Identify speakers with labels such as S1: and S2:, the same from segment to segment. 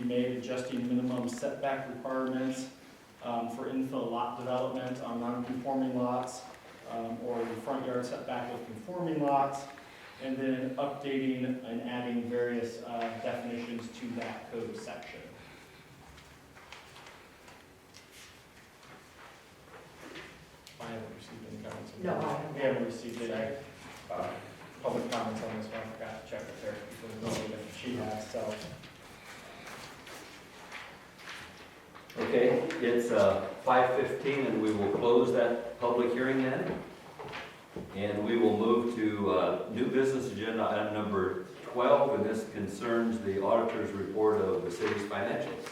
S1: made adjusting minimum setback requirements um, for infill lot development on non-conforming lots um, or the front yard setback of conforming lots, and then updating and adding various uh, definitions to that code section. I haven't received any comments. on
S2: No,
S1: that.
S2: I haven't.
S1: We haven't received any uh, public comments on this one, I forgot to check with her, because it's only that she has, so.
S3: Okay, it's uh, five fifteen, and we will close that public hearing then. And we will move to uh, new business agenda item number twelve, and this concerns the auditor's report of the city's financials.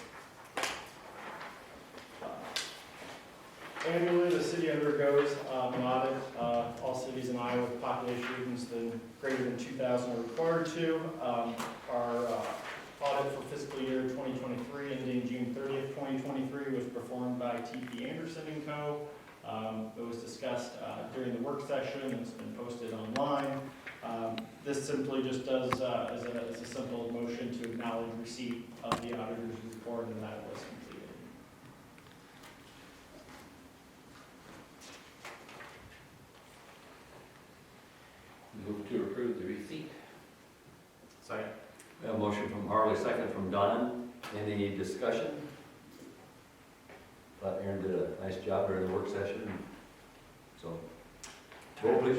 S1: Annually, the city undergoes um, an audit. Uh, All cities in Iowa with population regions than- greater than 2,000 are required to. Um, Our uh, audit for fiscal year 2023 ending June 30th, 2023 was performed by TP Anderson and Co. Um, It was discussed uh, during the work session, and it's been posted online. Um, This simply just does, uh, is a, is a simple motion to acknowledge receipt of the auditor's report and that was completed.
S3: Move to approve the receipt.
S1: Second.
S3: A motion from Harley, second from Don. Any discussion? Thought Aaron did a nice job during the work session, so. Roll, please.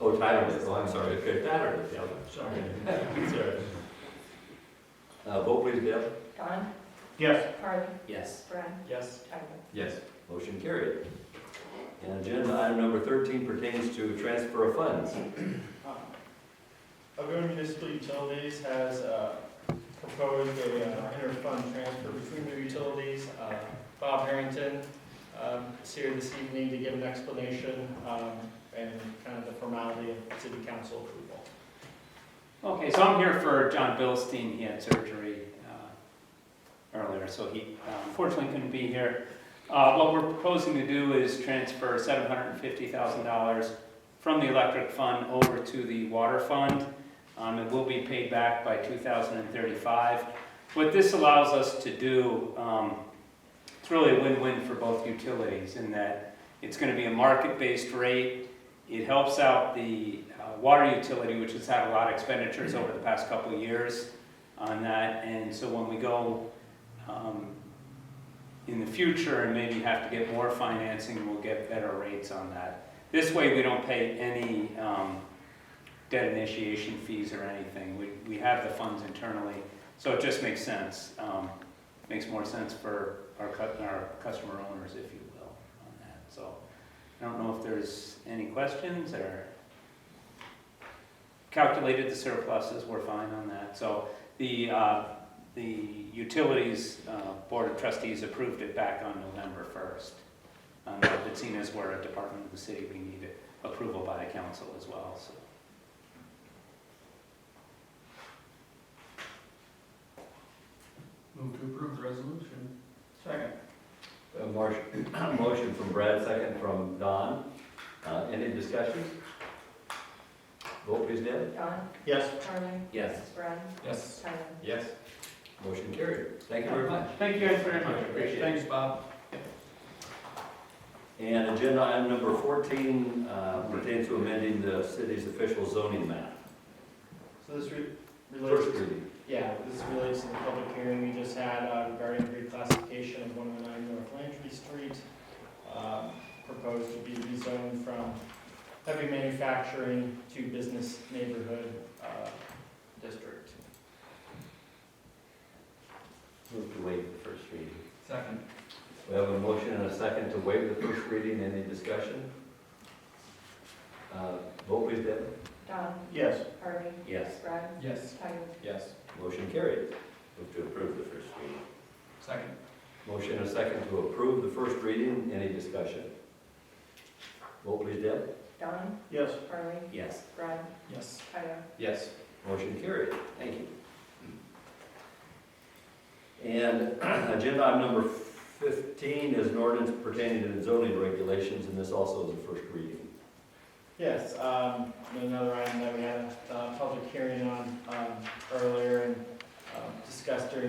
S3: Oh, Tyler, did. oh, I'm sorry, okay, Tyler, did, yeah.
S1: Sorry.
S3: Uh, vote please, Deb.
S2: Don,
S1: Yes.
S2: Harley,
S3: Yes.
S2: Brad,
S1: Yes.
S2: Tyler.
S3: Yes. Motion carried. And agenda item number thirteen pertains to transfer of funds.
S1: Algonah Uh, Municipal Utilities has uh, proposed a uh, interfund transfer between the utilities. Uh, Bob Harrington um, is here this evening to give an explanation um, and kind of the formality of city council approval.
S4: Okay, so I'm here for John Bilstein, he had surgery uh, earlier, so he uh, unfortunately couldn't be here. Uh, What we're proposing to do is transfer $750,000 from the electric fund over to the water fund. Um, It will be paid back by 2035. What this allows us to do, um, it's really a win-win for both utilities in that it's going to be a market-based rate, it helps out the uh, water utility, which has had a lot of expenditures over the past couple of years on that. And so when we go um, in the future and maybe have to get more financing, we'll get better rates on that. This way, we don't pay any um, debt initiation fees or anything. We we have the funds internally, so it just makes sense. Um, Makes more sense for our cu- our customer owners, if you will, on that, so. I don't know if there's any questions or calculated the surpluses, we're fine on that. So the, uh, the utilities uh, board of trustees approved it back on November 1st. Um, But seeing as we're a department of the city, we need approval by the council as well, so.
S5: Move to approve the resolution.
S1: Second.
S3: A marsh- motion from Brad, second from Don. Uh, Any discussion? Vote please, Deb.
S2: Don,
S1: Yes.
S2: Harley,
S3: Yes.
S2: Brad,
S5: Yes.
S2: Tyler.
S3: Yes. Motion carried. Thank you very much.
S4: Thank you guys very much.
S3: Appreciate it.
S5: Thanks, Bob.
S3: And agenda item number fourteen uh, pertains to amending the city's official zoning map.
S1: So this re- relates
S3: First
S1: to
S3: reading.
S1: Yeah, this relates to the public hearing we just had uh, regarding reclassification of one oh nine North Landry Street. um, Proposed to be rezoned from heavy manufacturing to business neighborhood uh, district.
S3: Move to waive the first reading.
S5: Second.
S3: We have a motion and a second to waive the first reading. Any discussion? Uh, Vote please, Deb.
S2: Don,
S1: Yes.
S2: Harley,
S3: Yes.
S2: Brad,
S5: Yes.
S2: Tyler.
S5: Yes.
S3: Motion carried. Move to approve the first reading.
S5: Second.
S3: Motion and a second to approve the first reading. Any discussion? Vote please, Deb.
S2: Don,
S1: Yes.
S2: Harley,
S3: Yes.
S2: Brad,
S5: Yes.
S2: Tyler.
S5: Yes.
S3: Motion carried. Thank you. And agenda item number fifteen is an ordinance pertaining to zoning regulations, and this also is a first reading.
S1: Yes, um, another item that we had a uh, public hearing on um, earlier and um, discussed during